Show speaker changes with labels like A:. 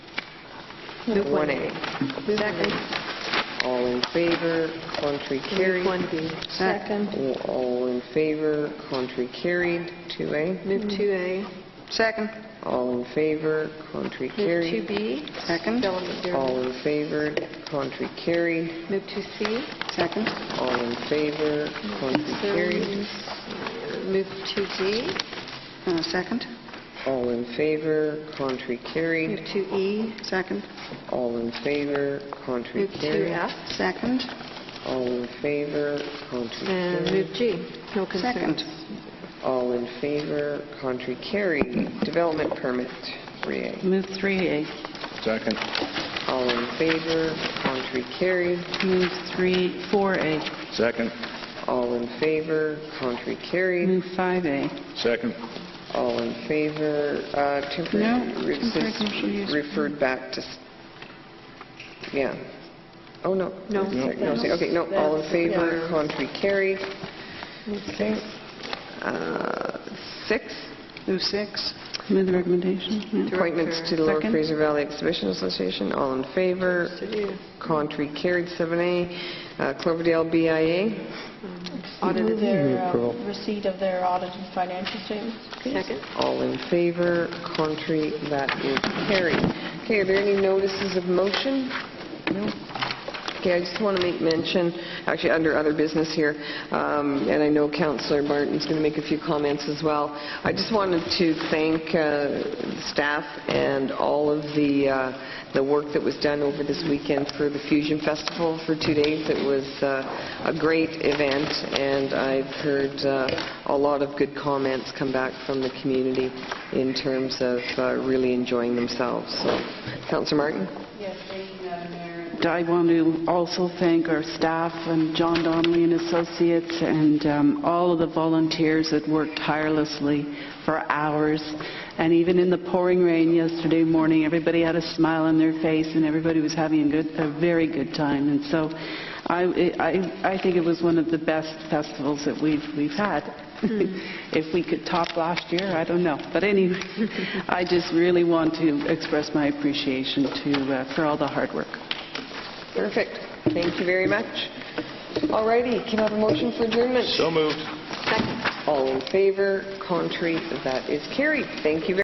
A: Move
B: 1A.
A: Second.
B: All in favor, contrary carried.
A: Move 1B. Second.
B: All in favor, contrary carried. 2A.
A: Move 2A.
C: Second.
B: All in favor, contrary
A: Move
B: carried.
A: 2B.
C: Second.
A: Development Bureau.
B: All in favor, contrary carried.
A: Move 2C.
C: Second.
B: All in favor, contrary carried.
A: Move 2D.
C: Uh, Second.
B: All in favor, contrary
A: Move E.
B: carried.
A: 2E.
C: E. Second.
B: All in favor, contrary
A: Move
B: carried.
A: 2F.
C: Second.
B: All in favor, contrary
A: And
B: carried.
A: move G. No concerns.
C: Second.
B: All in favor, contrary carried. Development permit, 3A.
C: Move 3A.
D: Second.
B: All in favor, contrary carried.
C: Move 3, 4A.
D: Second.
B: All in favor, contrary carried.
C: Move 5A.
D: Second.
B: All in favor, uh, temporary,
C: No,
B: re- this
C: temporary commercial use.
B: referred back to, s- yeah. Oh, no.
A: No.
B: Wait a sec, No, see, okay, no, all in favor, contrary carried. Okay. Uh, Six,
C: Move 6. Move the recommendation. yeah.
B: appointments to the Lower
C: Second.
B: Fraser Valley Exhibition Association, all in favor,
A: To do.
B: contrary carried, 7A. Uh, Cloverdale BIA,
A: Audit
E: Move
A: is
E: their uh, receipt of their audited financial statements.
A: second.
B: all in favor, contrary, that is carried. Okay, are there any notices of motion? No? Okay, I just want to make mention, actually, under other business here, um, and I know Councillor Martin's going to make a few comments as well. I just wanted to thank uh, staff and all of the uh, the work that was done over this weekend for the Fusion Festival for two days. It was uh, a great event, and I've heard uh, a lot of good comments come back from the community in terms of uh, really enjoying themselves. So, Councillor Martin?
F: Yes, thank you, Madam Mayor.
E: I want to also thank our staff and John Donnelly and Associates and um, all of the volunteers that worked tirelessly for hours. And even in the pouring rain yesterday morning, everybody had a smile on their face and everybody was having a good, a very good time. And so I, I, I think it was one of the best festivals that we've, we've had. If we could top last year, I don't know. But anyway, I just really want to express my appreciation to, uh, for all the hard work.
B: Perfect. Thank you very much. All righty, can I have a motion for adjournment?
D: So moved.
B: All in favor, contrary, that is carried. Thank you very